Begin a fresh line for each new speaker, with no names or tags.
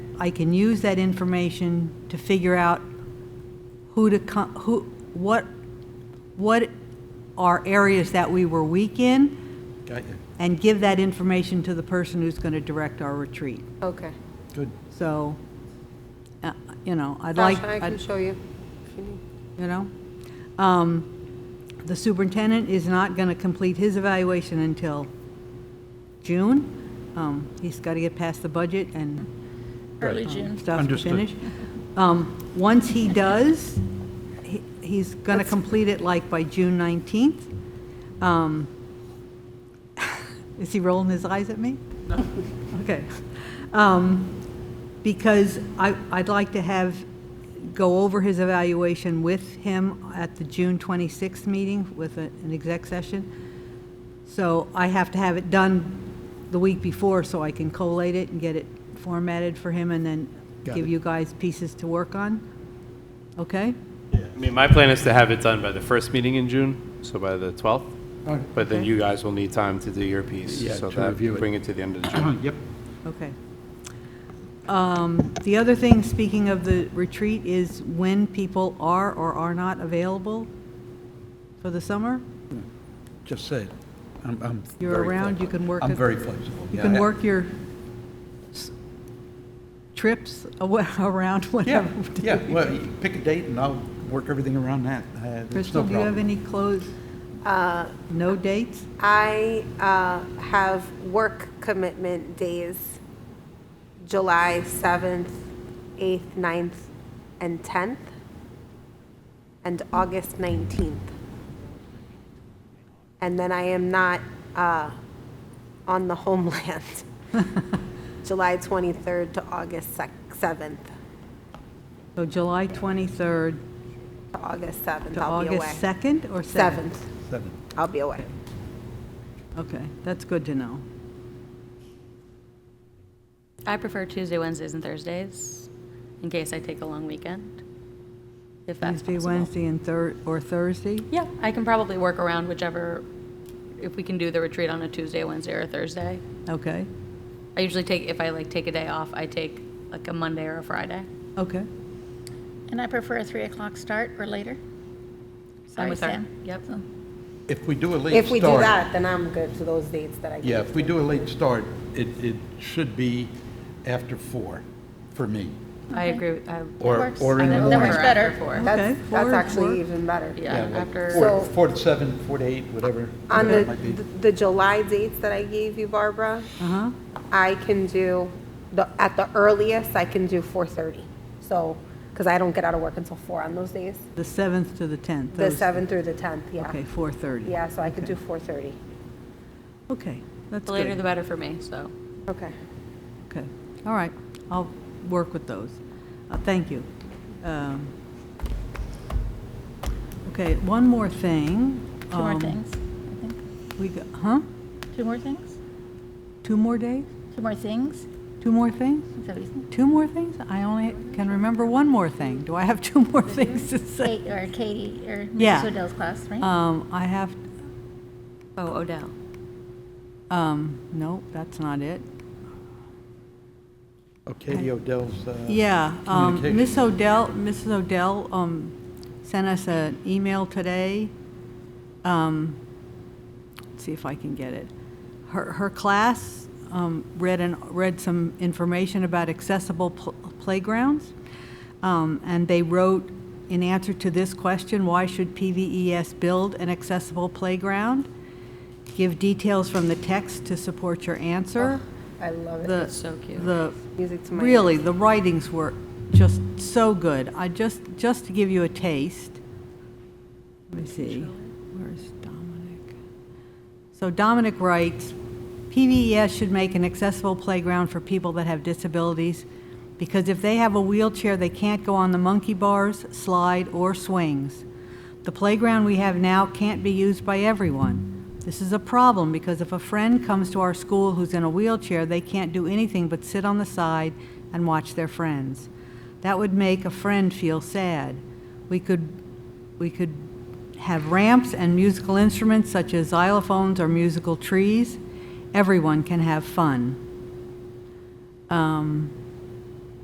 I can use that information to figure out who to, co- who, what, what are areas that we were weak in,
Got you.
and give that information to the person who's going to direct our retreat.
Okay.
Good.
So, uh, you know, I'd like,
Sasha, I can
I'd-
show you. if you need.
you know? Um, The superintendent is not going to complete his evaluation until June. Um, He's got to get past the budget and
Early June.
stuff to
Understood.
finish. Um, Once he does, he- he's going to complete it like by June 19th. Um, Is he rolling his eyes at me? No. Okay. Um, Because I, I'd like to have, go over his evaluation with him at the June 26th meeting with a- an exec session. So I have to have it done the week before so I can collate it and get it formatted for him and then
Got
give
it.
you guys pieces to work on. Okay?
I mean, my plan is to have it done by the first meeting in June, so by the 12th.
All right.
But then
Okay.
you guys will need time to do your piece.
Yeah,
so
to
that-
review it.
Bring it to the end of June.
Yep.
Okay. Um, The other thing, speaking of the retreat, is when people are or are not available for the summer?
Just said, I'm, I'm.
You're
very
around, you
flexible.
can work
I'm
it-
very flexible.
You
Yeah,
can
I-
work your s- trips awa- around
Yeah,
whatever.
yeah, well, you pick a date and I'll work everything around that. Uh, there's no
Crystal, do you have
problem.
any close,
Uh,
no dates?
I uh, have work commitment days, July 7th, 8th, 9th, and 10th, and August 19th. And then I am not uh, on the homeland, July 23rd to August sec- 7th,
So July 23rd
to August 7th,
to
I'll be away.
August 2nd or 7th?
7th,
Seven.
I'll be away.
Okay, that's good to know.
I prefer Tuesday, Wednesdays, and Thursdays, in case I take a long weekend, if that's
Tuesday,
possible.
Wednesday, and Thur, or Thursday?
Yeah, I can probably work around whichever, if we can do the retreat on a Tuesday, Wednesday, or Thursday.
Okay,
I usually take, if I like take a day off, I take like a Monday or a Friday.
okay.
And I prefer a 3 o'clock start or later.
I'm
Sorry,
with her.
Sam.
Yep.
If we do a late start.
If we do that, then I'm good for those dates that I gave.
Yeah, if we do a late start, it, it should be after four for me.
I agree, with- I.
Or,
works.
or in the
That
I
morning.
works
prefer after
better.
four.
Okay,
That's,
four-
that's
four.
actually even better.
Yeah,
like
after,
Four,
So-
four to seven, four to eight, whatever.
On
whatever it
the,
might be.
the July dates that I gave you, Barbara,
Uh-huh,
I can do, the, at the earliest, I can do 4:30. So, because I don't get out of work until four on those days,
the 7th to the 10th.
the
those-
7th through the 10th, yeah.
Okay, 4:30.
Yeah, so I could do 4:30.
Okay, that's
the later the
good.
better for me, so.
Okay.
Okay, all right, I'll work with those. Uh, Thank you. Um, Okay, one more thing.
Two more
Um,
things, I think.
We, go- huh?
Two more things?
Two more days?
Two more things?
Two more things?
Is that what you
Two more things? I only can remember one more thing. Do I have two more things to
said?
say?
Kate or Katie or
Yeah.
Mrs. Odell's class, right?
Um, I have,
Oh, Odell.
um, no, that's not it.
Oh, Katie Odell's. uh,
Yeah, um,
communication.
Ms. Odell, Mrs. Odell, um, sent us an email today. Um, let's see if I can get it. Her, her class, um, read and, read some information about accessible pl- playgrounds. Um, and they wrote, in answer to this question, why should PVES build an accessible playground? Give details from the text to support your answer.
I love it.
The,
That's so cute.
the,
Music to my ears.
really, the writings were just so good. I just, just to give you a taste, let me see, where's Dominic? So Dominic writes, PVES should make an accessible playground for people that have disabilities because if they have a wheelchair, they can't go on the monkey bars, slide, or swings. The playground we have now can't be used by everyone. This is a problem because if a friend comes to our school who's in a wheelchair, they can't do anything but sit on the side and watch their friends. That would make a friend feel sad. We could, we could have ramps and musical instruments such as xylophones or musical trees. Everyone can have fun. Um,